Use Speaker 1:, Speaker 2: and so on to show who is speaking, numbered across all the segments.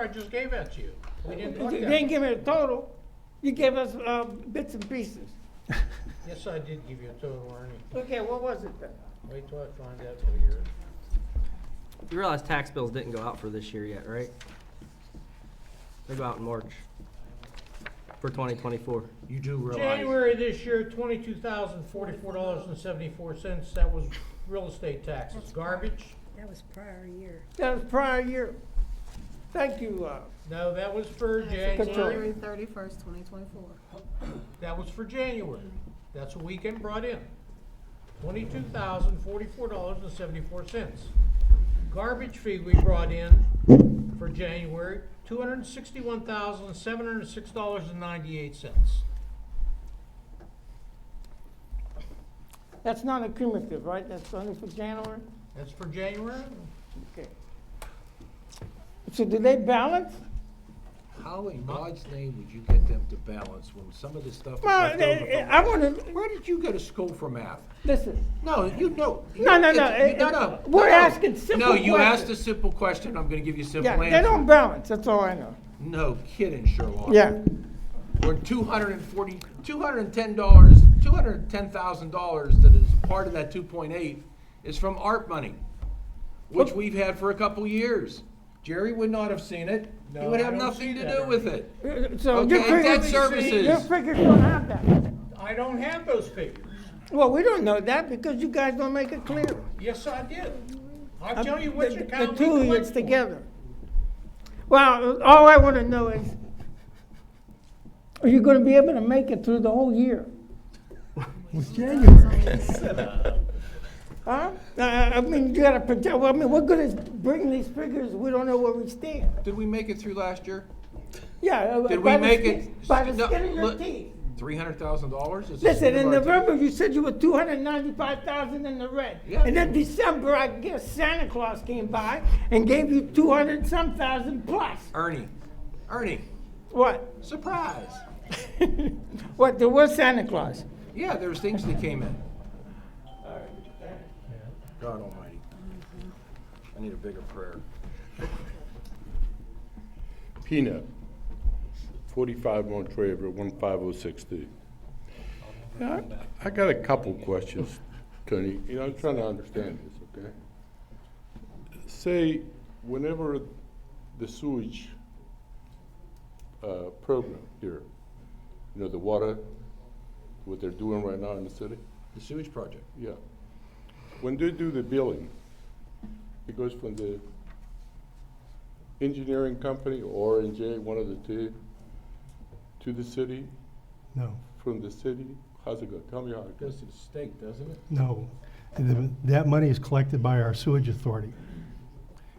Speaker 1: I just gave that to you. We didn't
Speaker 2: You
Speaker 1: look at
Speaker 2: didn't
Speaker 1: it.
Speaker 2: give me a total, you gave us uh, bits and pieces.
Speaker 1: Yes, I did give you a total, Ernie.
Speaker 2: Okay, what was it then?
Speaker 1: Wait till I find out for you.
Speaker 3: You realize tax bills didn't go out for this year yet, right? They go out in March for 2024.
Speaker 4: You do realize,
Speaker 1: January this year, twenty-two thousand forty-four dollars and seventy-four cents. That was real estate taxes.
Speaker 5: That's-
Speaker 1: Garbage?
Speaker 5: That was prior year.
Speaker 2: That was prior year. Thank you, uh,
Speaker 1: No, that was for
Speaker 2: January
Speaker 1: January.
Speaker 5: thirty-first, twenty twenty-four.
Speaker 1: That was for January. That's what weekend brought in. Twenty-two thousand forty-four dollars and seventy-four cents. Garbage fee we brought in for January, two hundred and sixty-one thousand seven hundred and six dollars and ninety-eight cents.
Speaker 2: that's not accumulative, right? That's only for January?
Speaker 1: That's for January?
Speaker 2: Okay. So do they balance?
Speaker 4: how in God's name would you get them to balance when some of this stuff is
Speaker 2: Well,
Speaker 4: left
Speaker 2: they-
Speaker 4: over from-
Speaker 2: I want to,
Speaker 4: Where did you go to school for math?
Speaker 2: listen,
Speaker 4: No, you know.
Speaker 2: No, no, no,
Speaker 4: it's-
Speaker 2: it-
Speaker 4: No, no.
Speaker 2: we're
Speaker 4: no.
Speaker 2: asking simple
Speaker 4: No, you asked a
Speaker 2: questions.
Speaker 4: simple question, I'm gonna give you a simple
Speaker 2: yeah,
Speaker 4: answer.
Speaker 2: they don't balance, that's all I know.
Speaker 4: No kidding, Sherlock.
Speaker 2: Yeah,
Speaker 4: Or two hundred and forty, two hundred and ten dollars, two hundred and ten thousand dollars that is part of that two point eight is from ARP money, which we've had for a couple years. Jerry would not have seen it. He
Speaker 1: No,
Speaker 4: would
Speaker 1: I
Speaker 4: have
Speaker 1: don't
Speaker 4: nothing
Speaker 1: see
Speaker 4: to
Speaker 1: that,
Speaker 4: do with
Speaker 1: Ernie.
Speaker 4: it.
Speaker 2: so
Speaker 4: Okay,
Speaker 2: your
Speaker 4: debt
Speaker 2: figures, your
Speaker 4: services.
Speaker 2: figures don't have that.
Speaker 1: I don't have those figures.
Speaker 2: Well, we don't know that because you guys don't make it clear.
Speaker 1: Yes, I did. I'll tell you which
Speaker 2: Um, The-
Speaker 1: account
Speaker 2: The
Speaker 1: we
Speaker 2: two of yous
Speaker 1: collect for.
Speaker 2: together. Well, all I want to know is, are you going to be able to make it through the whole year? Huh? I, I mean, you got to project, well, I mean, what good is bringing these figures, we don't know where we stand.
Speaker 4: Did we make it through last year?
Speaker 2: Yeah. uh,
Speaker 4: Did we
Speaker 2: by the
Speaker 4: make
Speaker 2: skin-
Speaker 4: it-
Speaker 2: By the
Speaker 4: no,
Speaker 2: skin of your
Speaker 4: look-
Speaker 2: teeth.
Speaker 4: Three hundred thousand dollars?
Speaker 2: Listen, in November, you said you were two hundred ninety-five thousand in the red.
Speaker 4: Yeah.
Speaker 2: And then December, I guess Santa Claus came by and gave you two hundred some thousand plus.
Speaker 4: Ernie, Ernie,
Speaker 2: What?
Speaker 4: surprise.
Speaker 2: What, there was Santa Claus?
Speaker 4: Yeah, there's things that came in. God almighty. I need a bigger prayer.
Speaker 6: Peanut, 45 Monterey Road, 15063. Yeah, I I got a couple questions, Tony. You know, I'm trying to understand this, okay? Say, whenever the sewage uh, program here, you know, the water, what they're doing right now in the city,
Speaker 4: The sewage project.
Speaker 6: yeah. When they do the billing, it goes from the engineering company, or and J, one of the two, to the city?
Speaker 7: No,
Speaker 6: From the city? How's it go? Tell me how it
Speaker 4: Goes
Speaker 6: goes.
Speaker 4: to the state, doesn't it?
Speaker 7: no. The- That money is collected by our sewage authority.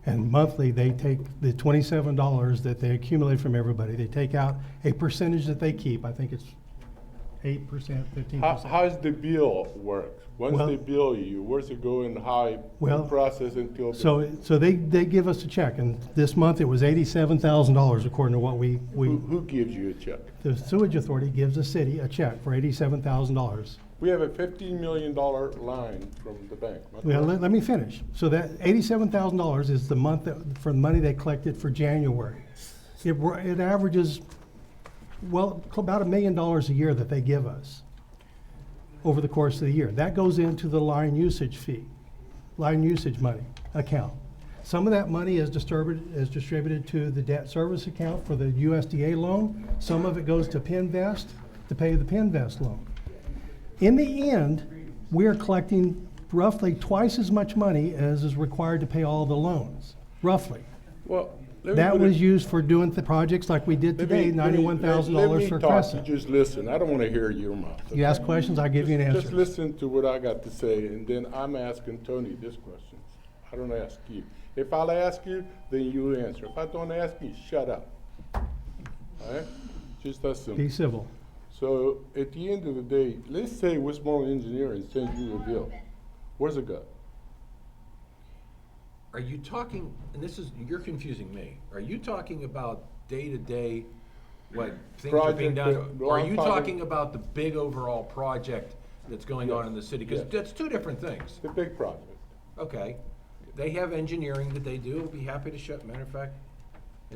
Speaker 7: And monthly, they take the twenty-seven dollars that they accumulate from everybody. They take out a percentage that they keep. I think it's eight percent, fifteen
Speaker 6: How,
Speaker 7: percent.
Speaker 6: how's the bill work? Once
Speaker 7: Well-
Speaker 6: they bill you, where's it going, how
Speaker 7: Well,
Speaker 6: it process until? the-
Speaker 7: So, so they, they give us a check, and this month it was eighty-seven thousand dollars according to what we,
Speaker 6: Who,
Speaker 7: we,
Speaker 6: who gives you a check?
Speaker 7: the sewage authority gives the city a check for eighty-seven thousand dollars.
Speaker 6: We have a fifteen million dollar line from the bank. am I
Speaker 7: Well,
Speaker 6: correct?
Speaker 7: let, let me finish. So that eighty-seven thousand dollars is the month that, for the money they collected for January. It, wa- it averages, well, cl- about a million dollars a year that they give us over the course of the year. That goes into the line usage fee, line usage money account. Some of that money is disturbed, is distributed to the debt service account for the USDA loan. Some of it goes to Pinvest to pay the Pinvest loan. In the end, we are collecting roughly twice as much money as is required to pay all the loans, roughly.
Speaker 6: Well. let me
Speaker 7: That
Speaker 6: put it-
Speaker 7: was used for doing the projects like we did
Speaker 6: let me- let
Speaker 7: today,
Speaker 6: me-
Speaker 7: ninety-one thousand
Speaker 6: let- let me
Speaker 7: dollars for
Speaker 6: talk.
Speaker 7: Crescent.
Speaker 6: You just listen. I don't wanna hear your mouth.
Speaker 7: You ask questions, I give you
Speaker 6: Just-
Speaker 7: an
Speaker 6: Just
Speaker 7: answer.
Speaker 6: listen to what I got to say, and then I'm asking Tony this question. I don't ask you. If I'll ask you, then you answer. If I don't ask you, shut up. All right? Just that simple.
Speaker 7: Be civil.
Speaker 6: So at the end of the day, let's say Westmoreland Engineering sends you a bill. Where's it go?
Speaker 4: Are you talking, and this is, you're confusing me, are you talking about day-to-day, what things are being
Speaker 6: Project
Speaker 4: done?
Speaker 6: that-
Speaker 4: Or are you
Speaker 6: well, I'm
Speaker 4: talking about the big overall project that's going on in the city? Because
Speaker 6: Yes.
Speaker 4: that's two different things.
Speaker 6: The big project.
Speaker 4: Okay, they have engineering that they do, be happy to show, matter of fact,